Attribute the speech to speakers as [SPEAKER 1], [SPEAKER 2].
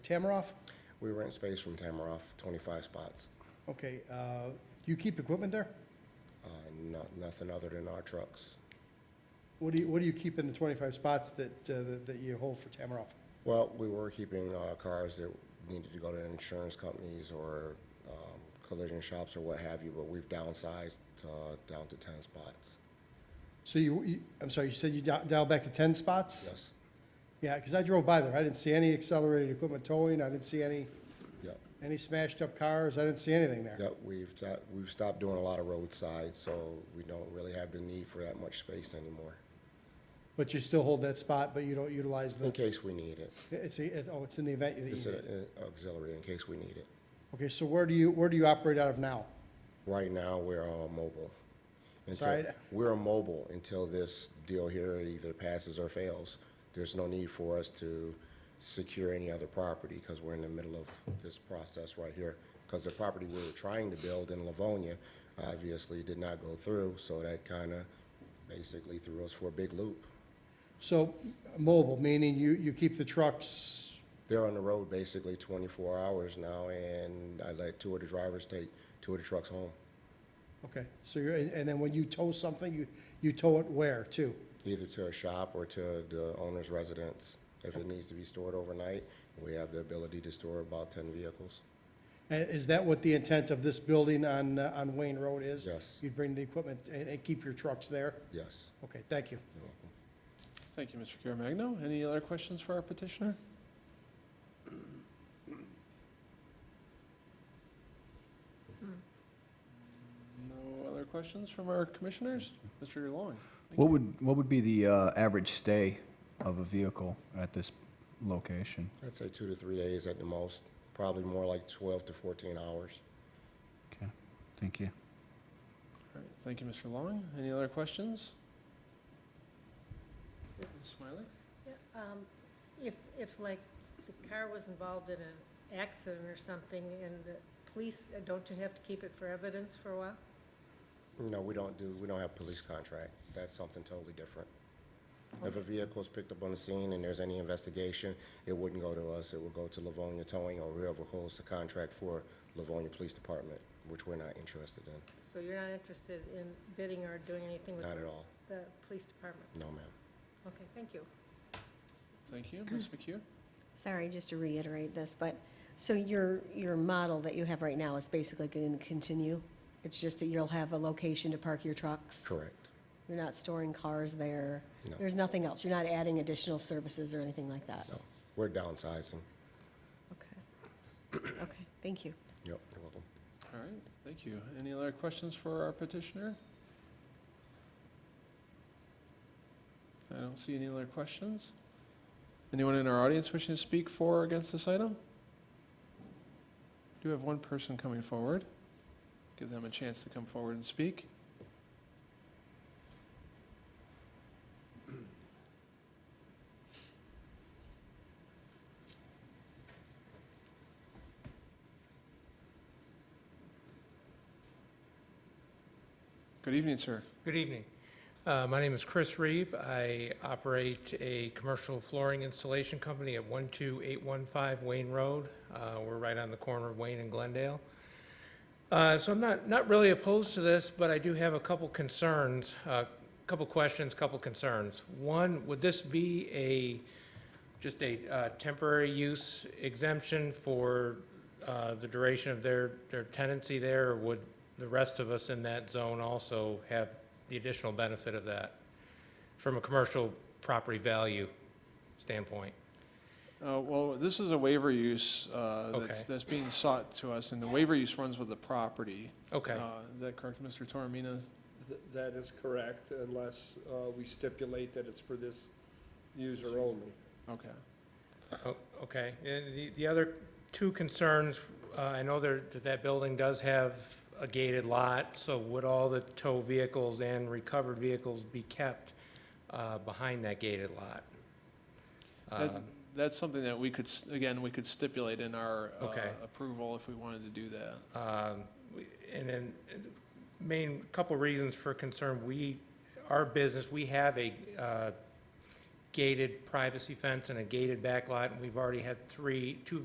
[SPEAKER 1] Tamaroff?
[SPEAKER 2] We rent space from Tamaroff, 25 spots.
[SPEAKER 1] Okay, uh, you keep equipment there?
[SPEAKER 2] Uh, Not, nothing other than our trucks.
[SPEAKER 1] What do you, what do you keep in the 25 spots that, uh, that- that you hold for Tamaroff?
[SPEAKER 2] Well, we were keeping uh, cars that needed to go to insurance companies or um, collision shops or what have you, but we've downsized uh, down to 10 spots.
[SPEAKER 1] So you, you- I'm sorry, you said you dia- dialed back to 10 spots?
[SPEAKER 2] Yes,
[SPEAKER 1] Yeah, because I drove by there. I didn't see any accelerated equipment towing. I didn't see any,
[SPEAKER 2] yep,
[SPEAKER 1] any smashed up cars. I didn't see anything there.
[SPEAKER 2] yep. We've, sto- we've stopped doing a lot of roadside, so we don't really have the need for that much space anymore,
[SPEAKER 1] But you still hold that spot, but you don't utilize
[SPEAKER 2] in
[SPEAKER 1] the,
[SPEAKER 2] case we need it.
[SPEAKER 1] it's, a- it- oh, it's in the event that you
[SPEAKER 2] It's
[SPEAKER 1] need it.
[SPEAKER 2] an auxiliary in case we need it.
[SPEAKER 1] Okay, so where do you, where do you operate out of now?
[SPEAKER 2] Right now, we're all mobile. Until-
[SPEAKER 1] Sorry?
[SPEAKER 2] We're mobile until this deal here either passes or fails. There's no need for us to secure any other property because we're in the middle of this process right here. Because the property we were trying to build in Livonia obviously did not go through, so that kind of basically threw us for a big loop.
[SPEAKER 1] So mobile, meaning you, you keep the trucks,
[SPEAKER 2] They're on the road basically 24 hours now, and I let two of the drivers take two of the trucks home,
[SPEAKER 1] okay. So you're, and and then when you tow something, you, you tow it where too?
[SPEAKER 2] either to a shop or to the owner's residence. If it needs to be stored overnight, we have the ability to store about ten vehicles.
[SPEAKER 1] And is that what the intent of this building on, uh, on Wayne Road is?
[SPEAKER 2] Yes.
[SPEAKER 1] You'd bring the equipment and, and keep your trucks there?
[SPEAKER 2] Yes.
[SPEAKER 1] Okay, thank you.
[SPEAKER 3] Thank you, Mr. Caremagno. Any other questions for our petitioner? No other questions from our commissioners? Mr. Long? thank
[SPEAKER 4] What
[SPEAKER 3] you.
[SPEAKER 4] would, what would be the uh, average stay of a vehicle at this location?
[SPEAKER 2] I'd say two to three days at the most, probably more like twelve to fourteen hours.
[SPEAKER 4] Okay, thank you.
[SPEAKER 3] All right, Thank you, Mr. Long. Any other questions? Ms. Smiley?
[SPEAKER 5] Yeah, um, If, if like the car was involved in an accident or something and the police, uh, don't you have to keep it for evidence for a while?
[SPEAKER 2] No, we don't do, we don't have police contract. That's something totally different. If a vehicle is picked up on the scene and there's any investigation, it wouldn't go to us. It would go to Livonia Towing or whoever holds the contract for Livonia Police Department, which we're not interested in.
[SPEAKER 5] So you're not interested in bidding or doing anything with
[SPEAKER 2] Not at all.
[SPEAKER 5] the police department?
[SPEAKER 2] No, ma'am.
[SPEAKER 5] Okay, thank you.
[SPEAKER 3] Thank you. Ms. McHugh?
[SPEAKER 6] Sorry, just to reiterate this, but, so your, your model that you have right now is basically going to continue? It's just that you'll have a location to park your trucks?
[SPEAKER 2] Correct.
[SPEAKER 6] You're not storing cars there?
[SPEAKER 2] No.
[SPEAKER 6] There's nothing else? You're not adding additional services or anything like that?
[SPEAKER 2] No, we're downsizing.
[SPEAKER 6] Okay. Okay, thank you.
[SPEAKER 2] Yep, you're welcome.
[SPEAKER 3] All right, thank you. Any other questions for our petitioner? I don't see any other questions. Anyone in our audience wishing to speak for or against this item? Do have one person coming forward. Give them a chance to come forward and speak. Good evening, sir.
[SPEAKER 7] Good evening. Uh, My name is Chris Reeve. I operate a commercial flooring installation company at 12815 Wayne Road. Uh, We're right on the corner of Wayne and Glendale. Uh, So I'm not, not really opposed to this, but I do have a couple concerns, a couple questions, couple concerns. One, would this be a, just a uh, temporary use exemption for uh, the duration of their, their tenancy there? Or would the rest of us in that zone also have the additional benefit of that from a commercial property value standpoint?
[SPEAKER 3] Uh, Well, this is a waiver use uh, that's
[SPEAKER 7] Okay.
[SPEAKER 3] that's being sought to us, and the waiver use runs with the property.
[SPEAKER 7] Okay,
[SPEAKER 3] Uh, Is that correct, Mr. Toromina?
[SPEAKER 8] Th- That is correct, unless uh, we stipulate that it's for this user only.
[SPEAKER 3] Okay.
[SPEAKER 7] O- okay. And the, the other two concerns, uh, I know there, that that building does have a gated lot, so would all the tow vehicles and recovered vehicles be kept uh, behind that gated lot?
[SPEAKER 3] That-
[SPEAKER 7] Uh,
[SPEAKER 3] That's something that we could, s- again, we could stipulate in our uh,
[SPEAKER 7] Okay.
[SPEAKER 3] approval if we wanted to do that.
[SPEAKER 7] Um, we- And then, uh, main, couple reasons for concern, we, our business, we have a uh, gated privacy fence and a gated back lot, and we've already had three, two